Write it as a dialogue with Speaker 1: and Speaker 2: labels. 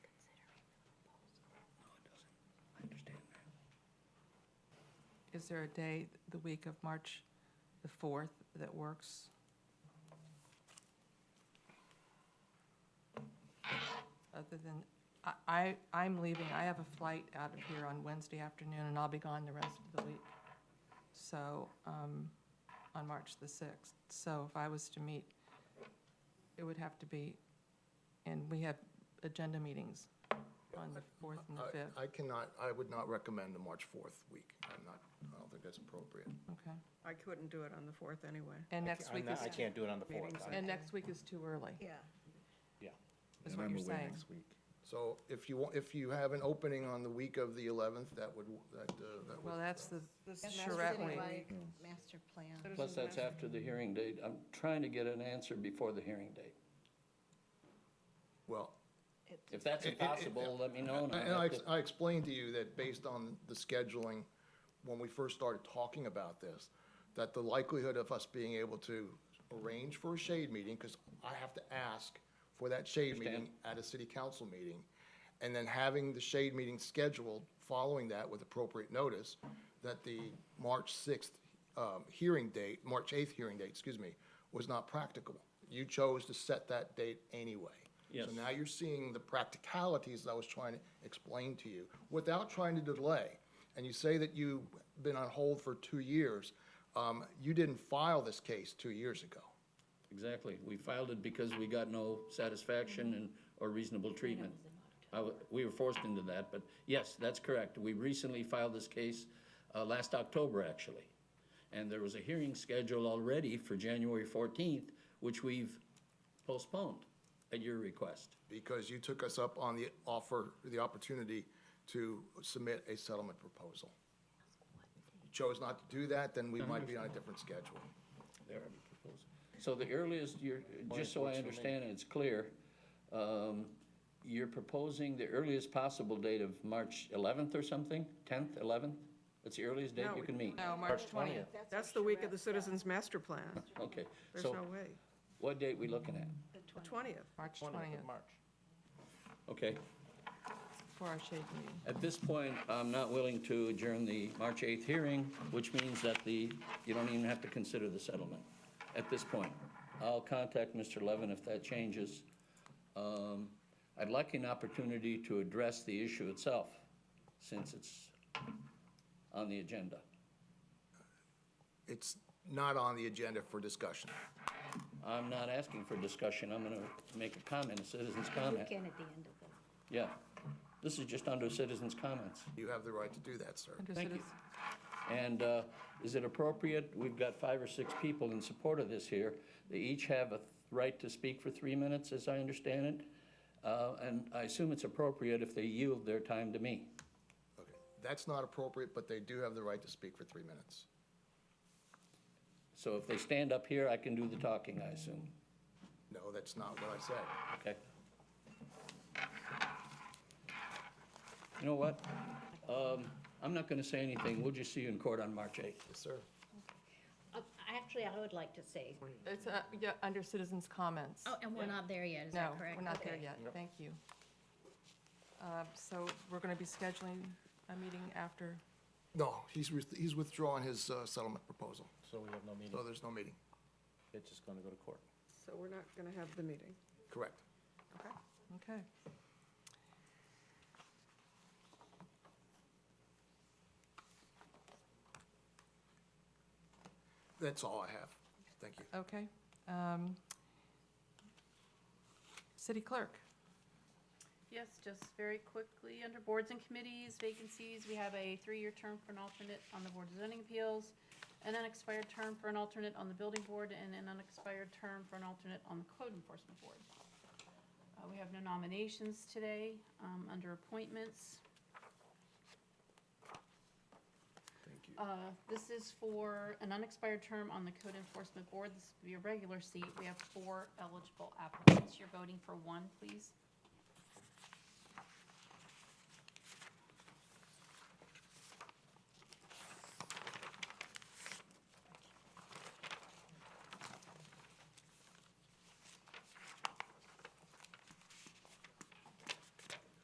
Speaker 1: Is there a day the week of March the 4th that works? Other than, I, I, I'm leaving, I have a flight out of here on Wednesday afternoon, and I'll be gone the rest of the week. So, um, on March the 6th. So if I was to meet, it would have to be, and we have agenda meetings on the 4th and
Speaker 2: I-
Speaker 1: the 5th,
Speaker 2: I cannot, I would not recommend the March 4th week. I'm not, I don't think that's appropriate.
Speaker 1: okay?
Speaker 3: I couldn't do it on the 4th anyway.
Speaker 1: And next
Speaker 4: I'm
Speaker 1: week
Speaker 4: not-
Speaker 1: is,
Speaker 4: I can't do it on the fourth.
Speaker 3: Meetings
Speaker 4: I-
Speaker 1: and next week is too early,
Speaker 5: Yeah.
Speaker 1: is what you're saying.
Speaker 2: So if you, wa- if you have an opening on the week of the 11th, that would, that, uh, that
Speaker 1: Well,
Speaker 2: would,
Speaker 1: that's the
Speaker 3: This
Speaker 5: And
Speaker 3: is
Speaker 5: that's
Speaker 1: charrette
Speaker 5: sitting
Speaker 1: week.
Speaker 5: like Master plan.
Speaker 6: Plus, that's after the hearing date. I'm trying to get an answer before the hearing date.
Speaker 2: well,
Speaker 6: If that's
Speaker 2: It- it- it-
Speaker 6: impossible, let me know. and I'll
Speaker 2: and I,
Speaker 6: have
Speaker 2: ex-
Speaker 6: to-
Speaker 2: I explained to you that based on the scheduling, when we first started talking about this, that the likelihood of us being able to arrange for a shade meeting, because I have to ask for that shade meeting at a city council meeting, and then having the shade meeting scheduled following that with appropriate notice, that the March sixth, um, hearing date, March eighth hearing date, excuse me, was not practicable. You chose to set that date anyway. So
Speaker 6: Yes.
Speaker 2: now you're seeing the practicalities I was trying to explain to you without trying to delay. And you say that you've been on hold for two years. Um, you didn't file this case two years ago.
Speaker 6: Exactly. We filed it because we got no satisfaction and, or reasonable treatment. I w- We were forced into that, but yes, that's correct. We recently filed this case, uh, last October, actually. And there was a hearing scheduled already for January fourteenth, which we've postponed at your request.
Speaker 2: because you took us up on the offer, the opportunity to submit a settlement proposal. You chose not to do that, then we might be on a different schedule.
Speaker 6: There. So the earliest you're, just so I understand and it's clear, um, you're proposing the earliest possible date of March eleventh or something? Tenth, eleventh? That's the earliest date
Speaker 3: No,
Speaker 6: you
Speaker 3: we-
Speaker 6: can meet?
Speaker 1: No, March 20th.
Speaker 3: That's the week of the Citizens Master Plan.
Speaker 6: Okay,
Speaker 3: There's
Speaker 6: so
Speaker 3: no way.
Speaker 6: what date we looking at?
Speaker 3: The 20th.
Speaker 1: March 20th
Speaker 6: Okay,
Speaker 1: for our shade meeting.
Speaker 6: at this point, I'm not willing to adjourn the March eighth hearing, which means that the, you don't even have to consider the settlement at this point. I'll contact Mr. Levin if that changes. Um, I'd like an opportunity to address the issue itself, since it's on the agenda.
Speaker 2: It's not on the agenda for discussion.
Speaker 6: I'm not asking for discussion, I'm gonna make a comment, a citizen's comment.
Speaker 5: Again, at the end of it.
Speaker 6: Yeah, this is just under citizens' comments.
Speaker 2: You have the right to do that, sir.
Speaker 1: Under
Speaker 6: Thank you.
Speaker 1: citizen-
Speaker 6: And uh, is it appropriate, we've got five or six people in support of this here, they each have a th- right to speak for three minutes, as I understand it, Uh, and I assume it's appropriate if they yield their time to me.
Speaker 2: Okay, That's not appropriate, but they do have the right to speak for three minutes.
Speaker 6: So if they stand up here, I can do the talking, I assume,
Speaker 2: No, that's not what I said.
Speaker 6: okay? You know what? Um, I'm not going to say anything, we'll just see you in court on March 8th.
Speaker 2: Yes, sir.
Speaker 5: Uh, Actually, I would like to say,
Speaker 1: It's, uh, yeah, under citizens' comments.
Speaker 5: oh, and we're not there yet, is
Speaker 1: No,
Speaker 5: that correct?
Speaker 1: we're not there
Speaker 5: Okay.
Speaker 1: yet. Thank you. Uh, So we're going to be scheduling a meeting after,
Speaker 2: No, he's, with- he's withdrawing his uh, settlement proposal,
Speaker 4: So we have no meeting,
Speaker 2: so there's no meeting.
Speaker 4: it's just gonna go to court.
Speaker 3: So we're not going to have the meeting.
Speaker 2: Correct.
Speaker 3: Okay.
Speaker 1: okay.
Speaker 2: That's all I have. Thank you.
Speaker 1: Okay. Um, City Clerk,
Speaker 7: Yes, just very quickly, under boards and committees, vacancies, we have a three-year term for an alternate on the Board of Zoning Appeals, an unexpired term for an alternate on the Building Board, and an unexpired term for an alternate on the Code Enforcement Board. Uh, we have no nominations today, um, under appointments.
Speaker 2: Thank you.
Speaker 7: Uh, this is for an unexpired term on the Code Enforcement Board, this would be a regular seat, we have four eligible applicants, you're voting for one, please.